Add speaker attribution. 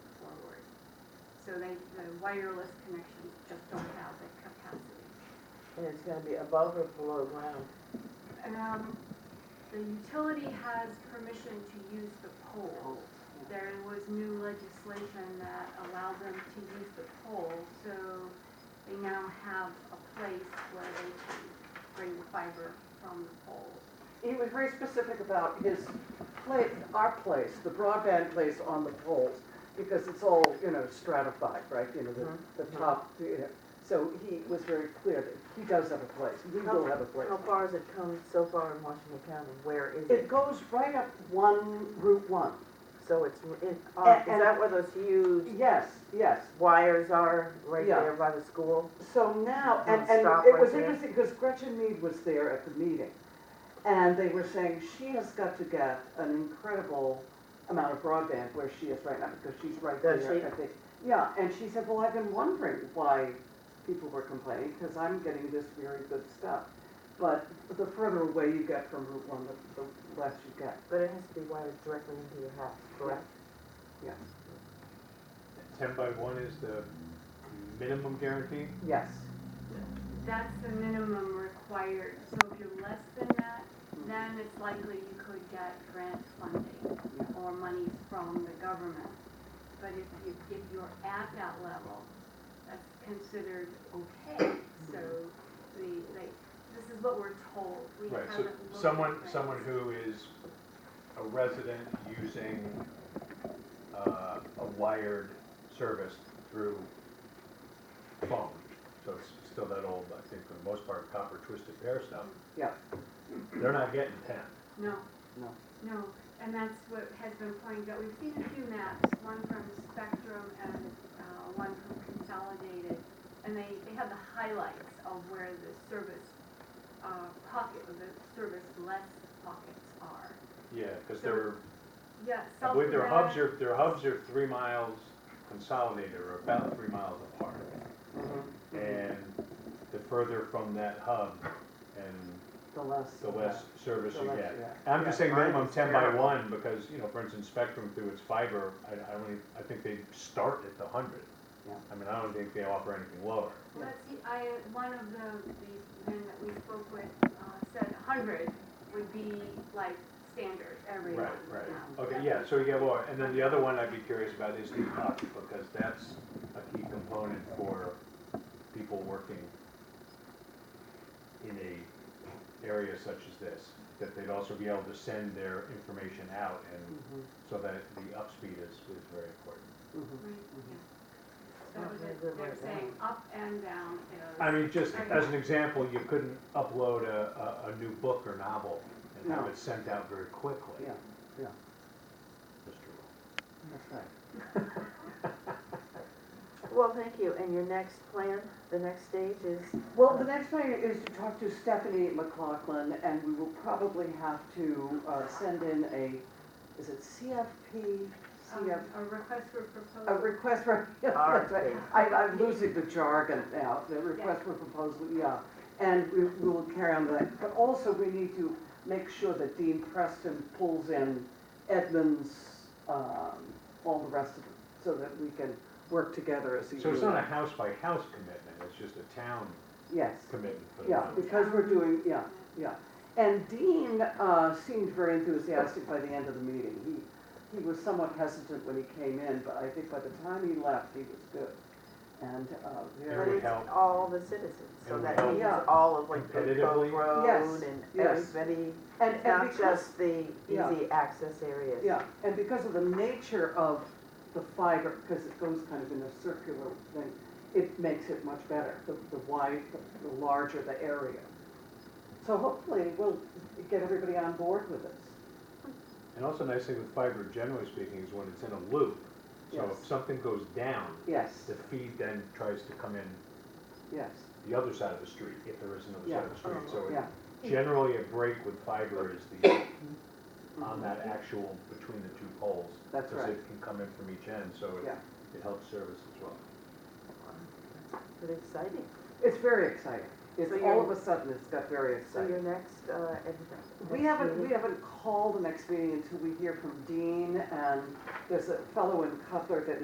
Speaker 1: so they, the wireless connections just don't have the capacity.
Speaker 2: And it's gonna be above or below ground?
Speaker 1: Um, the utility has permission to use the pole. There was new legislation that allowed them to use the pole, so they now have a place where they can bring the fiber from the pole.
Speaker 3: He was very specific about his place, our place, the broadband place on the poles, because it's all, you know, stratified, right? You know,
Speaker 2: Mhm.
Speaker 3: the, the top, you know, so he was very clear that he does have a place, we will have a place.
Speaker 2: How far has it come so far in Washington County? Where is
Speaker 3: It
Speaker 2: it?
Speaker 3: goes right up one, Route one.
Speaker 2: So it's, in-
Speaker 3: A-
Speaker 2: uh, is
Speaker 3: and-
Speaker 2: that where those huge
Speaker 3: Yes, yes.
Speaker 2: wires are, right
Speaker 3: Yeah.
Speaker 2: there by the school?
Speaker 3: So now, and,
Speaker 2: Don't
Speaker 3: and
Speaker 2: stop
Speaker 3: it
Speaker 2: right
Speaker 3: was
Speaker 2: there.
Speaker 3: interesting, because Gretchen Mead was there at the meeting, and they were saying she has got to get an incredible amount of broadband where she is right now, because she's right there,
Speaker 2: Does she?
Speaker 3: I think. Yeah, and she said, well, I've been wondering why people were complaining, because I'm getting this very good stuff. But the further away you get from Route One, the, the less you get,
Speaker 2: But it has to be wired directly into your house, correct?
Speaker 3: yes,
Speaker 4: Ten by one is the minimum guarantee?
Speaker 3: yes.
Speaker 1: That's the minimum required, so if you're less than that, then it's likely you could get grant funding or monies from the government. But if you, if you're at that level, that's considered okay,
Speaker 4: Mm-hmm.
Speaker 1: so the, like, this is what we're told, we
Speaker 4: Right,
Speaker 1: haven't
Speaker 4: so
Speaker 1: looked at
Speaker 4: someone,
Speaker 1: grants.
Speaker 4: someone who is a resident using uh, a wired service through phone, so it's still that old, I think for the most part, copper twisted pair stuff.
Speaker 3: Yeah.
Speaker 4: They're not getting ten.
Speaker 1: No.
Speaker 3: No.
Speaker 1: No, and that's what has been pointed out, we've seen a few maps, one from Spectrum and, uh, one from Consolidated, and they, they have the highlights of where the service, uh, pocket, the service less pockets are.
Speaker 4: Yeah, because they're,
Speaker 1: Yeah,
Speaker 4: I
Speaker 1: South
Speaker 4: believe their hubs
Speaker 1: Dakota-
Speaker 4: are, their hubs are three miles consolidated, or about three miles apart.
Speaker 2: Mm-hmm.
Speaker 3: Mm-hmm.
Speaker 4: And the further from that hub and
Speaker 3: The less.
Speaker 4: the less service
Speaker 3: The
Speaker 4: you
Speaker 3: less
Speaker 4: get.
Speaker 3: you get.
Speaker 4: And I'm just saying
Speaker 2: Mine
Speaker 4: minimum
Speaker 2: is
Speaker 4: ten by
Speaker 2: terrible.
Speaker 4: one, because, you know, for instance, Spectrum through its fiber, I, I don't even, I think they start at the hundred.
Speaker 3: Yeah.
Speaker 4: I mean, I don't think they offer anything lower.
Speaker 1: Well, that's, the- I, one of the, these men that we spoke with, uh, said hundred would be like standard everywhere.
Speaker 4: Okay, yeah, so you get lower, and then the other one I'd be curious about is the hub, because that's a key component for people working in a area such as this, that they'd also be able to send their information out, and
Speaker 3: Mhm,
Speaker 4: so that the upspeed is, is very important.
Speaker 3: mhm.
Speaker 1: Right, yeah.
Speaker 2: Not
Speaker 1: That was
Speaker 2: very
Speaker 1: it.
Speaker 2: good
Speaker 1: They're
Speaker 2: right now.
Speaker 1: saying up and down is.
Speaker 4: I mean, just as an example, you couldn't upload a, a, a new book or novel and have
Speaker 3: No.
Speaker 4: it sent out very quickly.
Speaker 3: Yeah, yeah.
Speaker 4: Mr. Rowe.
Speaker 3: That's right.
Speaker 2: Well, thank you. And your next plan, the next stage is?
Speaker 3: Well, the next thing is to talk to Stephanie McLaughlin, and we will probably have to uh, send in a, is it CFP?
Speaker 1: Um,
Speaker 3: CF,
Speaker 1: A request for
Speaker 3: a
Speaker 1: proposal.
Speaker 3: request for, yeah, that's right. I, I'm losing the jargon now, the request for proposal, yeah. And we we will carry on with that, but also we need to make sure that Dean Preston pulls in Edmonds, um, all the rest of them, so that we can work together as a unit.
Speaker 4: So it's not a house by house commitment, it's just a town
Speaker 3: Yes.
Speaker 4: commitment for the
Speaker 3: Yeah,
Speaker 4: village.
Speaker 3: because we're doing, yeah, yeah. And Dean uh, seemed very enthusiastic by the end of the meeting. He, he was somewhat hesitant when he came in, but I think by the time he left, he was good. And uh,
Speaker 2: But
Speaker 4: would
Speaker 3: very,
Speaker 2: it's
Speaker 4: help.
Speaker 2: all the citizens, so
Speaker 4: It would
Speaker 2: that
Speaker 4: help.
Speaker 2: means
Speaker 3: Yeah.
Speaker 2: all of like Oak Grove
Speaker 4: Competitively.
Speaker 2: Road
Speaker 3: Yes,
Speaker 2: and
Speaker 3: yes.
Speaker 2: everybody,
Speaker 3: and, and
Speaker 2: not
Speaker 3: because,
Speaker 2: just the
Speaker 3: Yeah.
Speaker 2: easy access areas.
Speaker 3: yeah, and because of the nature of the fiber, because it goes kind of in a circular thing, it makes it much better, the, the wide, the- the larger the area. So hopefully we'll get everybody on board with this.
Speaker 4: And also a nice thing with fiber, generally speaking, is when it's in a loop. So
Speaker 3: Yes.
Speaker 4: if something goes down,
Speaker 3: Yes,
Speaker 4: the feed then tries to come in
Speaker 3: yes,
Speaker 4: the other side of the street, if there is another side of the street. So
Speaker 3: yeah.
Speaker 4: it- generally a break with fiber is the, on that actual, between the two poles.
Speaker 3: That's
Speaker 4: Because
Speaker 3: right.
Speaker 4: it can come in from each end, so it,
Speaker 3: Yeah.
Speaker 4: it helps service as well.
Speaker 2: But exciting.
Speaker 3: It's very exciting. It's
Speaker 2: So you're-
Speaker 3: all of a sudden, it's got very
Speaker 2: So your
Speaker 3: exciting.
Speaker 2: next, uh, ed-
Speaker 3: We
Speaker 2: next
Speaker 3: haven't, we
Speaker 2: meeting-
Speaker 3: haven't called the next meeting until we hear from Dean and there's a fellow in Cutler that